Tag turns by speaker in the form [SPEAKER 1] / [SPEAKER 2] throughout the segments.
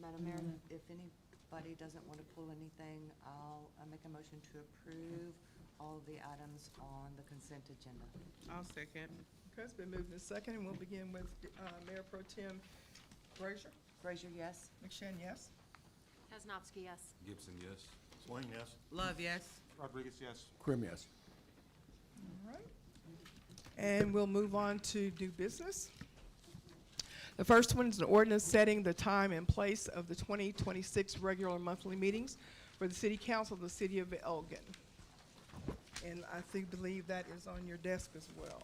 [SPEAKER 1] Madam Mayor, if anybody doesn't want to pull anything, I'll uh, make a motion to approve all of the items on the consent agenda.
[SPEAKER 2] I'll second.
[SPEAKER 3] Okay, it's been moved and second, and we'll begin with uh, Mayor Pro Tem Brazier.
[SPEAKER 1] Frazier, yes?
[SPEAKER 3] McShane, yes?
[SPEAKER 4] Kaznowski, yes.
[SPEAKER 5] Gibson, yes.
[SPEAKER 6] Swain, yes.
[SPEAKER 2] Love, yes.
[SPEAKER 6] Rodriguez, yes.
[SPEAKER 7] Krim, yes.
[SPEAKER 3] All right. And we'll move on to new business. The first one is an ordinance setting the time and place of the 2026 regular monthly meetings for the City Council of the City of Elgin. And I think, believe that is on your desk as well.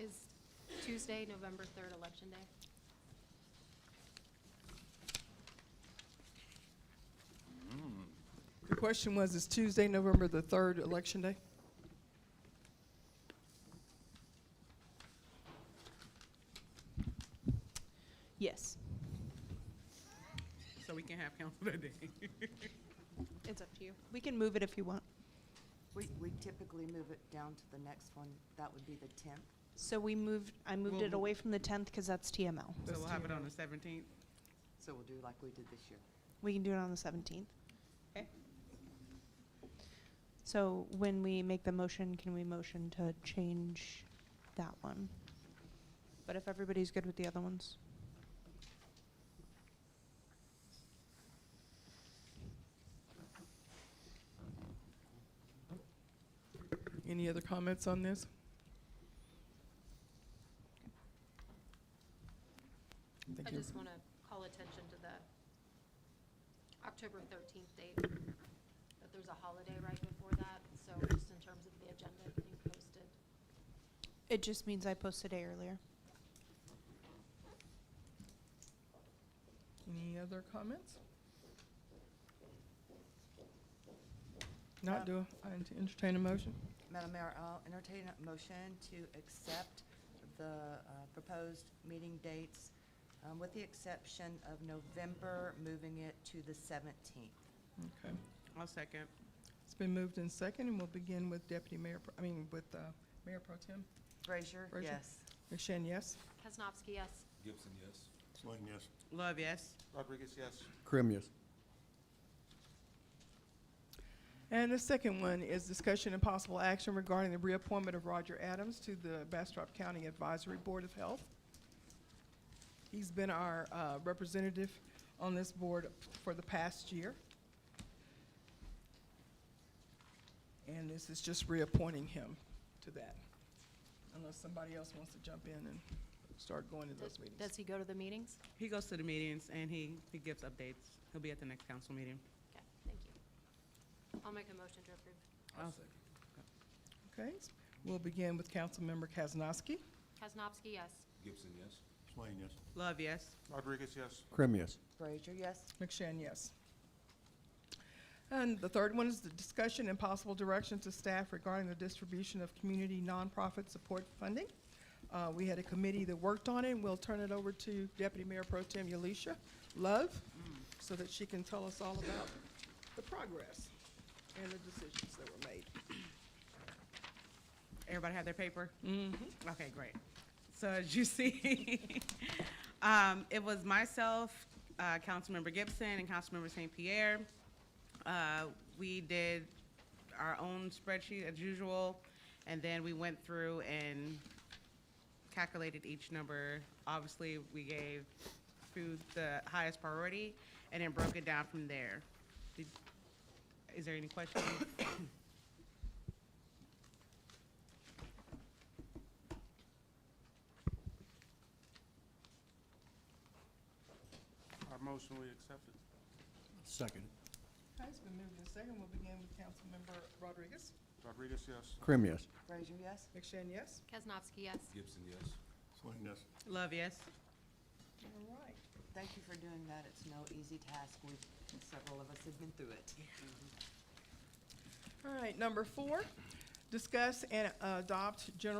[SPEAKER 4] Is Tuesday, November 3rd, Election Day?
[SPEAKER 3] The question was, is Tuesday, November the 3rd, Election Day?
[SPEAKER 8] Yes.
[SPEAKER 2] So we can have council today.
[SPEAKER 8] It's up to you. We can move it if you want.
[SPEAKER 1] We we typically move it down to the next one. That would be the 10th.
[SPEAKER 8] So we moved, I moved it
[SPEAKER 2] We'll-
[SPEAKER 8] away from the 10th because that's TML.
[SPEAKER 2] So we'll have it on the seventeenth.
[SPEAKER 1] So we'll do like we did this year.
[SPEAKER 8] We can do it on the 17th.
[SPEAKER 2] Okay.
[SPEAKER 8] So when we make the motion, can we motion to change that one? But if everybody's good with the other ones?
[SPEAKER 3] Any other comments on this? Thank
[SPEAKER 4] I
[SPEAKER 3] you.
[SPEAKER 4] just want to call attention to the October 13th date, that there's a holiday right before that, so just in terms of the agenda being posted.
[SPEAKER 8] It just means I posted a earlier.
[SPEAKER 3] Any other comments? Not do, I entertain a motion.
[SPEAKER 1] Madam Mayor, I'll entertain a motion to accept the uh, proposed meeting dates, um, with the exception of November, moving it to the 17th.
[SPEAKER 3] Okay.
[SPEAKER 2] I'll second.
[SPEAKER 3] It's been moved in second, and we'll begin with Deputy Mayor, Pro- I mean, with uh, Mayor Pro Tem.
[SPEAKER 1] Frazier,
[SPEAKER 3] Frazier?
[SPEAKER 1] yes.
[SPEAKER 3] McShane, yes?
[SPEAKER 4] Kaznowski, yes.
[SPEAKER 5] Gibson, yes.
[SPEAKER 6] Swain, yes.
[SPEAKER 2] Love, yes.
[SPEAKER 6] Rodriguez, yes.
[SPEAKER 7] Krim, yes.
[SPEAKER 3] And the second one is discussion and possible action regarding the reappointment of Roger Adams to the Bastrop County Advisory Board of Health. He's been our uh, representative on this board for the past year. And this is just reappointing him to that, unless somebody else wants to jump in and start going to those meetings.
[SPEAKER 4] Does he go to the meetings?
[SPEAKER 2] He goes to the meetings and he, he gives updates. He'll be at the next council meeting.
[SPEAKER 4] Okay, thank you. I'll make a motion to approve.
[SPEAKER 2] I'll second.
[SPEAKER 3] Okay, we'll begin with Councilmember Kaznowski.
[SPEAKER 4] Kaznowski, yes.
[SPEAKER 5] Gibson, yes.
[SPEAKER 6] Swain, yes.
[SPEAKER 2] Love, yes.
[SPEAKER 6] Rodriguez, yes.
[SPEAKER 7] Krim, yes.
[SPEAKER 1] Frazier, yes.
[SPEAKER 3] McShane, yes. And the third one is the discussion and possible direction to staff regarding the distribution of community nonprofit support funding. Uh, We had a committee that worked on it, and we'll turn it over to Deputy Mayor Pro Tem Yalisha Love, so that she can tell us all about the progress and the decisions that were made.
[SPEAKER 2] Everybody have their paper? Mm-hmm. Okay, great. So as you see, um, it was myself, uh, Councilmember Gibson and Councilmember St. Pierre. Uh, we did our own spreadsheet as usual, and then we went through and calculated each number. Obviously, we gave food the highest priority and then broke it down from there. Did- Is there any questions?
[SPEAKER 6] Our motion, we accept it.
[SPEAKER 7] Second.
[SPEAKER 3] Okay, it's been moved and second. We'll begin with Councilmember Rodriguez.
[SPEAKER 6] Rodriguez, yes.
[SPEAKER 7] Krim, yes.
[SPEAKER 1] Frazier, yes.
[SPEAKER 3] McShane, yes?
[SPEAKER 4] Kaznowski, yes.
[SPEAKER 5] Gibson, yes.
[SPEAKER 6] Swain, yes.
[SPEAKER 2] Love, yes?
[SPEAKER 3] All right.
[SPEAKER 1] Thank you for doing that. It's no easy task. We've, several of us have been through it.
[SPEAKER 3] All right, number four, discuss and adopt general